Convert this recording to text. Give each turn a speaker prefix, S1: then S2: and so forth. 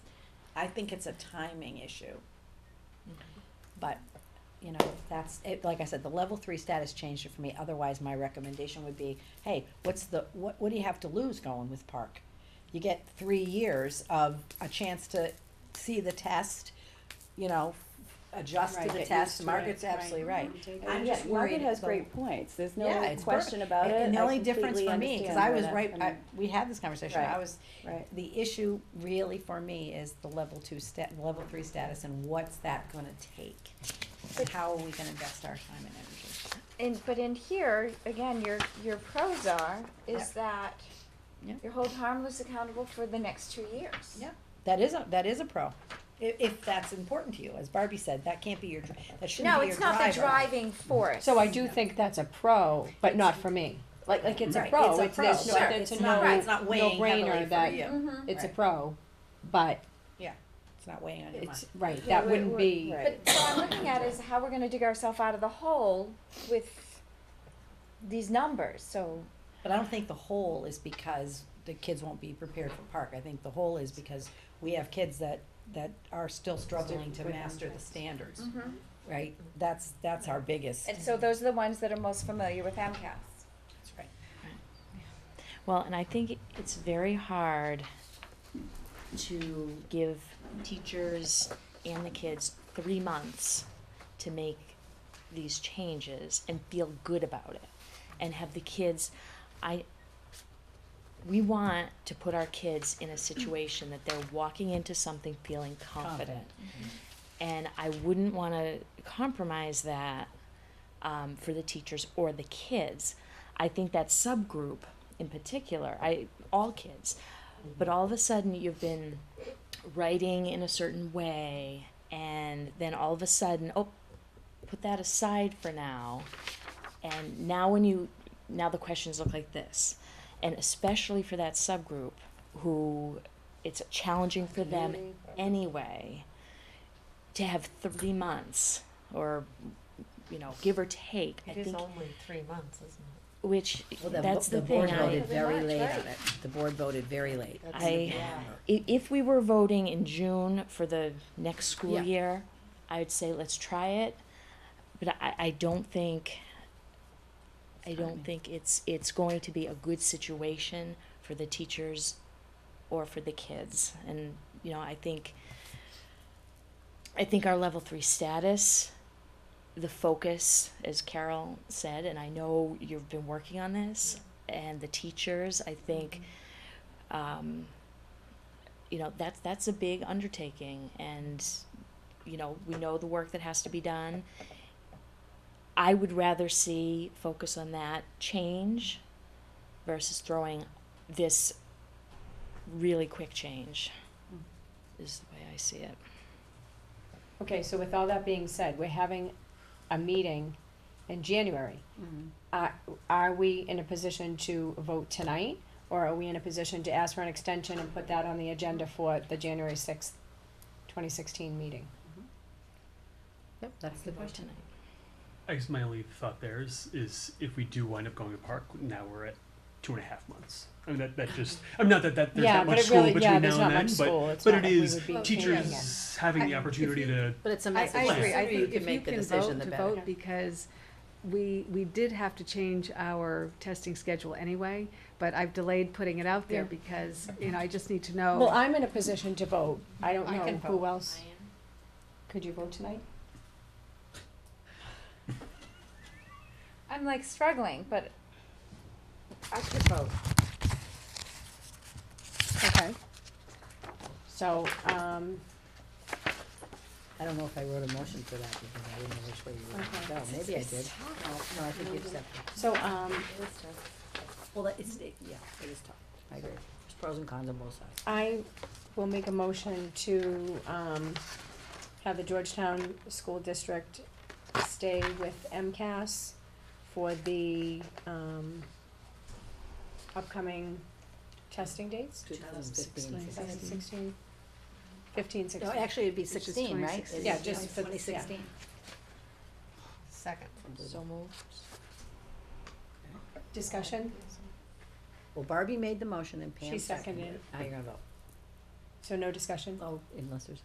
S1: I think it's a timing issue.
S2: Mm-hmm.
S1: But, you know, that's, it, like I said, the level three status changed it for me, otherwise my recommendation would be, hey, what's the, what, what do you have to lose going with Park? You get three years of a chance to see the test, you know, adjust
S3: Right,
S1: to the
S3: get used to
S1: test,
S3: it,
S1: Margaret's
S3: right.
S1: absolutely right.
S3: I'm just worried.
S2: Margaret has
S1: it's a-
S2: great points, there's
S1: Yeah,
S2: no
S1: it's
S2: question about
S1: And-
S2: it.
S1: And the
S2: I
S1: only difference
S2: completely
S1: for me, cause
S2: understand
S1: I
S2: where
S1: was
S2: that's
S1: right, I,
S2: coming-
S1: we had this conversation, I
S2: Right.
S1: was,
S2: Right,
S1: the issue really for me is the level two stat, level three status and what's that gonna take? And how are we gonna invest our time and energy?
S4: In, but in here, again, your, your pros are, is that
S1: Yeah.
S4: you're hold harmless accountable for the next two years.
S1: Yeah. That is a, that is a pro, i- if that's important to you, as Barbie said, that can't be your, dri- that shouldn't
S4: No,
S1: be your
S4: it's
S1: driver.
S4: not the driving
S5: Mm-hmm.
S4: force.
S6: So I do think that's a pro, but not for me. Like, like it's a
S1: Right,
S6: pro,
S1: it's a
S6: it's,
S1: pro,
S6: there's no,
S1: sure,
S6: it's
S1: it's
S6: a
S1: not-
S6: no,
S1: right, it's not weighing heavily
S6: no-brainer
S1: for
S6: that,
S1: you.
S4: Mhm.
S6: it's a
S1: Right.
S6: pro, but
S1: It's not weighing on your mind.
S6: it's, right,
S2: Yeah,
S6: that
S2: we're-
S6: wouldn't
S2: we're-
S6: be,
S2: right.
S4: But what I'm looking at is how we're gonna dig ourselves out of the hole with these numbers, so.
S1: But I don't think the whole is because the kids won't be prepared for park. I think the whole is because we have kids that, that are still struggling to master the standards,
S5: Mm-hmm.
S1: right? That's, that's our biggest.
S4: And so those are the ones that are most familiar with MCAS.
S1: That's right.
S7: Well, and I think it's very hard to give teachers and the kids three months to make these changes and feel good about it and have the kids I we want to put our kids in a situation that they're walking into something feeling confident. And I wouldn't want to compromise that um, for the teachers or the kids. I think that subgroup in particular, I all kids, but all of a sudden you've been writing in a certain way, and then all of a sudden, oh, put that aside for now, and now when you now the questions look like this, and especially for that subgroup who it's challenging for them anyway to have three months or you know give or take i think
S3: only three months, isn't
S7: which
S5: Well, the,
S7: that's
S5: bo-
S7: the,
S5: the
S7: thing
S5: board
S7: I,
S5: voted very
S4: Pretty
S5: late
S4: much,
S5: on it. The board voted very late.
S3: it?
S7: I i- if we were voting in june for the next school
S5: Yeah.
S7: year i would say let's try it but i, I don't think i don't think it's it's going to be a good situation for the teachers or for the kids and you know i think i think our level three status the focus as carol said and i know you've been working on this and the teachers i think um, you know that's that's a big undertaking and you know we know the work that has to be done i would rather see focus on that change versus throwing this really quick change
S5: Mm-hmm.
S7: is the way i see it
S6: okay, so with all that being said, we're having a meeting in January. Are, are we in a position to vote tonight, or are we in a position to ask for an extension and put that on the agenda for the January sixth, twenty sixteen meeting?
S5: Yep, that's the question.
S8: I guess my only thought there is, is if we do wind up going to park, now we're at two and a half months. I mean, that, that just, I mean, not that, that there's
S6: Yeah,
S8: not
S6: but
S8: much
S6: it
S8: school
S6: really-
S8: between
S6: yeah,
S8: now
S6: there's not
S8: and then,
S6: much
S8: but,
S6: school. It's
S8: but
S6: not
S8: it
S6: like we
S8: is
S6: would be changing it.
S8: teachers having the opportunity to,
S5: But it's a
S2: I,
S5: message.
S2: I
S8: plan.
S2: agree, I
S5: If you
S2: think
S5: can
S2: if you
S5: make the
S2: can
S5: decision,
S2: vote,
S5: the
S2: to
S5: better.
S2: vote, because we, we did have to change our testing schedule anyway, but I've delayed putting it out there
S6: Yeah.
S2: because, you know, I just need to
S6: Well,
S2: know.
S6: I'm in a position to vote, I don't
S2: I
S6: know
S2: can
S6: who else. Could you vote tonight?
S4: I'm like struggling, but I could vote.
S6: Okay. So, um,
S5: I don't know if I wrote a motion for that because I didn't know which way you
S6: Okay.
S5: were going to go. Maybe I did. No, no, I think you accepted.
S6: so, um,
S5: Well, that- it's, it- yeah, it is tough. I agree. There's pros and cons on both sides.
S6: I will make a motion to, um, have the Georgetown School District stay with MCAS for the, um, upcoming testing dates,
S5: 2015.
S6: 2016, 15, 16.
S5: No, actually, it'd be
S2: It's just
S5: sixteen, right?
S2: 2016.
S6: Yeah, just for- yeah.
S5: Twenty sixteen.
S3: Second.
S7: so moved
S6: Discussion,
S5: Well, Barbie made the motion and Pam
S6: she seconded it.
S5: Now you're gonna vote.
S9: So no discussion?
S1: Oh, unless there's